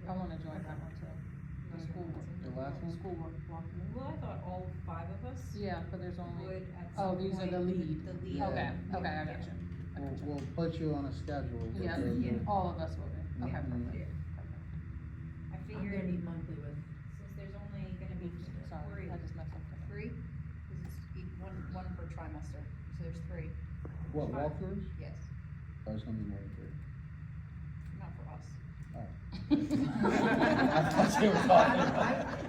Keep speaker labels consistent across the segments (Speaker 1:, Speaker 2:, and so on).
Speaker 1: of that hotel, the school work.
Speaker 2: The last
Speaker 1: the
Speaker 2: one?
Speaker 1: School work, block.
Speaker 3: Well, I thought all five of us
Speaker 1: Yeah, but there's only,
Speaker 3: would at
Speaker 1: oh,
Speaker 3: some
Speaker 1: these are
Speaker 3: point.
Speaker 1: the lead.
Speaker 3: The lead.
Speaker 2: Yeah.
Speaker 1: Okay, okay,
Speaker 3: Yeah.
Speaker 1: I got you.
Speaker 2: We'll, we'll put you on a schedule. with
Speaker 1: Yeah,
Speaker 2: the-
Speaker 3: Yeah.
Speaker 1: all of us will be, okay,
Speaker 2: Yeah.
Speaker 1: perfect.
Speaker 3: Yeah. I
Speaker 4: I'm gonna
Speaker 3: figured,
Speaker 4: meet monthly with,
Speaker 3: since there's only gonna be three,
Speaker 1: perfect. Sorry, I just messed up. there.
Speaker 5: Three, cause it's
Speaker 3: e,
Speaker 5: each- one, one per trimester, so there's three,
Speaker 2: What, walkthroughs?
Speaker 5: yes,
Speaker 2: Oh, it's gonna be more than three.
Speaker 5: not for us.
Speaker 2: Oh.
Speaker 1: I
Speaker 2: thought you were talking about-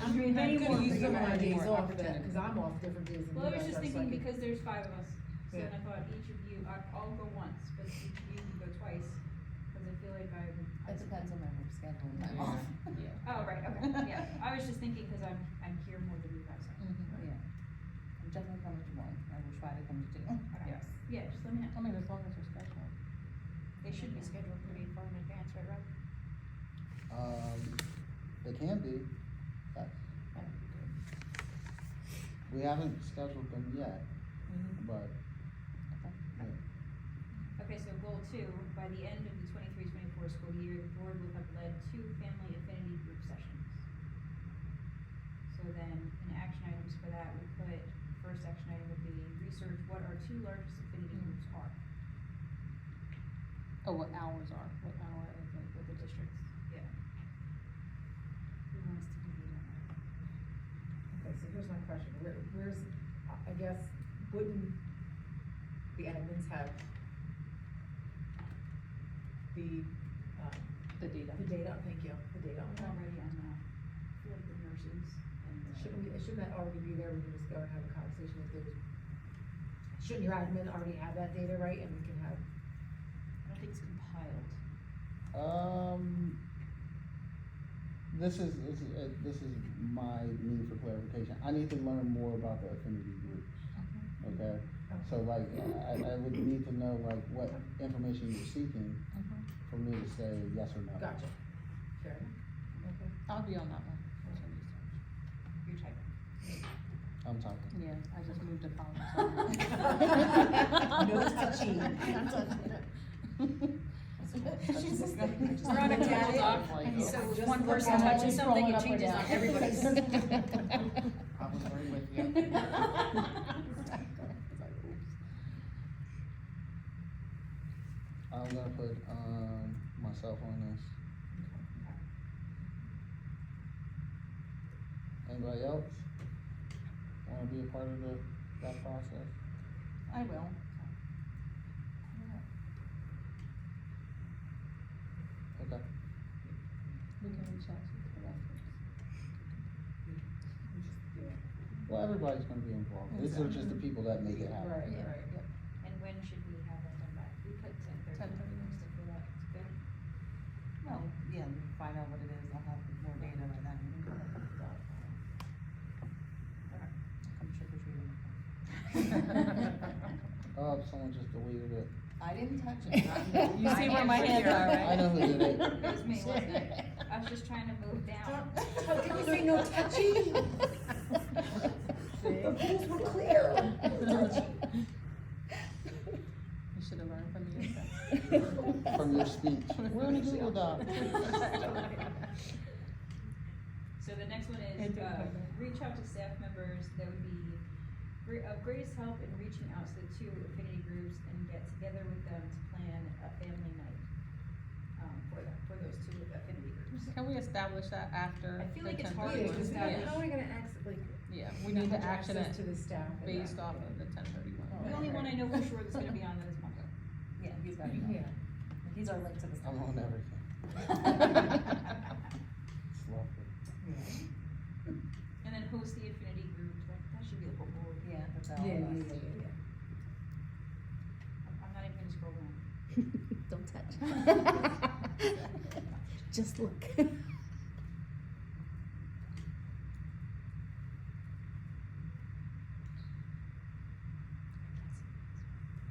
Speaker 4: I'm being
Speaker 1: I
Speaker 4: many
Speaker 1: could
Speaker 4: more for
Speaker 1: use
Speaker 4: you
Speaker 1: some
Speaker 4: my
Speaker 1: idea
Speaker 4: days
Speaker 1: more
Speaker 4: off then,
Speaker 1: opportunity.
Speaker 4: cause I'm off different days than you
Speaker 3: well, I was
Speaker 4: guys
Speaker 3: just
Speaker 4: are, so I
Speaker 3: thinking
Speaker 4: can-
Speaker 3: because there's five of us, so
Speaker 4: Yeah.
Speaker 3: then I thought each of you, I'd all go once, but each of you can go twice, cause I feel like I'm.
Speaker 6: It depends on my work schedule and time
Speaker 2: Yeah.
Speaker 6: off.
Speaker 3: Oh, right, okay, yeah, I was just thinking, cause I'm, I'm here more than you guys are.
Speaker 1: Mhm.
Speaker 6: Yeah. I'm definitely coming to one, I will try to come to two.
Speaker 3: Okay.
Speaker 1: Yes.
Speaker 3: Yeah, just let me know,
Speaker 1: I mean, as long as you're scheduled.
Speaker 5: They should be scheduled pretty far in advance, right, Rob?
Speaker 2: Um, they can be, yes. We haven't scheduled them yet, but, yeah.
Speaker 3: okay, so goal two, by the end of the twenty-three, twenty-four school year, the board will have led two family affinity group sessions. So then, in action items for that, we put, first action item would be research what our two largest affinity groups are.
Speaker 1: Oh, what hours are, what hour is it with the districts?
Speaker 3: Yeah. Who wants to be leader?
Speaker 4: Okay, so here's my question, where, where's, I- I guess, wouldn't the admins have the, um,
Speaker 1: The data.
Speaker 4: the data, thank you, the data on
Speaker 3: I'm
Speaker 4: that?
Speaker 3: already on that, like the nurses and the.
Speaker 4: Shouldn't we, shouldn't that already be there, we can just go and have a conversation if there's, shouldn't your admin already have that data, right, and we can have,
Speaker 3: I don't think it's compiled.
Speaker 2: Um, this is, this is, uh, this is my need for clarification. I need to learn more about the affinity groups,
Speaker 1: Mm-hmm,
Speaker 2: okay?
Speaker 4: oh,
Speaker 2: So like, I, I would need to know like what information you're seeking
Speaker 1: Mhm.
Speaker 2: for me to say yes or no.
Speaker 4: gotcha, fair enough, okay.
Speaker 1: I'll be on that one.
Speaker 3: You're typing.
Speaker 2: I'm talking.
Speaker 1: Yeah, I just moved to college.
Speaker 6: Nose to cheek. That's
Speaker 1: She's just like-
Speaker 6: We're on a Google
Speaker 1: Doc,
Speaker 6: Doc, so
Speaker 1: just
Speaker 6: one
Speaker 1: look
Speaker 6: person
Speaker 1: at it,
Speaker 6: touches
Speaker 1: it's
Speaker 6: something,
Speaker 1: scrolling
Speaker 6: it
Speaker 1: up or
Speaker 6: changes
Speaker 1: down.
Speaker 6: on everybody's.
Speaker 2: I was right with I'm gonna put, um, myself on this. Anybody else? Wanna be a part of the, that process?
Speaker 6: I will.
Speaker 2: Okay.
Speaker 1: We can reach out to the rest of us.
Speaker 2: Well, everybody's gonna be involved. These are just the people that make it happen.
Speaker 4: Right, right.
Speaker 3: And when should we have that done by? We put ten thirty, we
Speaker 1: 10:30.
Speaker 3: still feel that it's good.
Speaker 6: Well, yeah, we'll find out what it is, I'll have more data by then. Come trick or treating.
Speaker 2: Oh, someone just deleted it.
Speaker 6: I didn't touch it.
Speaker 1: You see where my hands are, right?
Speaker 2: I know who did it.
Speaker 3: It was me, wasn't it? I was just trying to move down.
Speaker 4: How can you say no touchy? The rules were clear.
Speaker 1: You should have learned from the inside.
Speaker 2: From your speech. We're in a Google Doc.
Speaker 3: So the next one
Speaker 1: And
Speaker 3: is,
Speaker 1: do it
Speaker 3: uh,
Speaker 1: quicker.
Speaker 3: reach out to staff members that would be gre- of greatest help in reaching out to the two affinity groups and get together with them to plan a family night, um, for them, for those two affinity groups.
Speaker 1: Can we establish that after?
Speaker 3: I feel
Speaker 1: the
Speaker 3: like it's
Speaker 1: 10:30
Speaker 3: hard to
Speaker 4: Yeah,
Speaker 1: one?
Speaker 4: 'cause
Speaker 3: establish.
Speaker 4: how are we gonna access, like,
Speaker 1: Yeah, we need to
Speaker 4: have
Speaker 1: action
Speaker 4: access
Speaker 1: it
Speaker 4: to the staff? and
Speaker 1: based
Speaker 4: that?
Speaker 1: off of the ten
Speaker 3: The
Speaker 1: thirty-one.
Speaker 3: only one I know for sure that's gonna be on that is Mongo.
Speaker 6: Yeah, he's got it.
Speaker 4: Yeah.
Speaker 6: He's our link to the.
Speaker 2: I'm on everything. It's lovely.
Speaker 3: And then host the affinity group, like, that should be the whole board.
Speaker 6: Yeah, that's all
Speaker 4: Yeah, yeah,
Speaker 6: of
Speaker 4: yeah,
Speaker 6: us.
Speaker 4: yeah,
Speaker 3: I'm I'm not even gonna scroll down.
Speaker 7: Don't touch. Just look.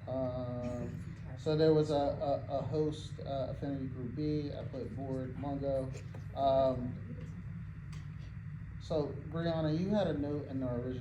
Speaker 2: Um,
Speaker 4: yeah.
Speaker 2: so there was a, a, a host, uh, Affinity Group B, I put Board Mungo. Um, so Brianna, you had a note in our original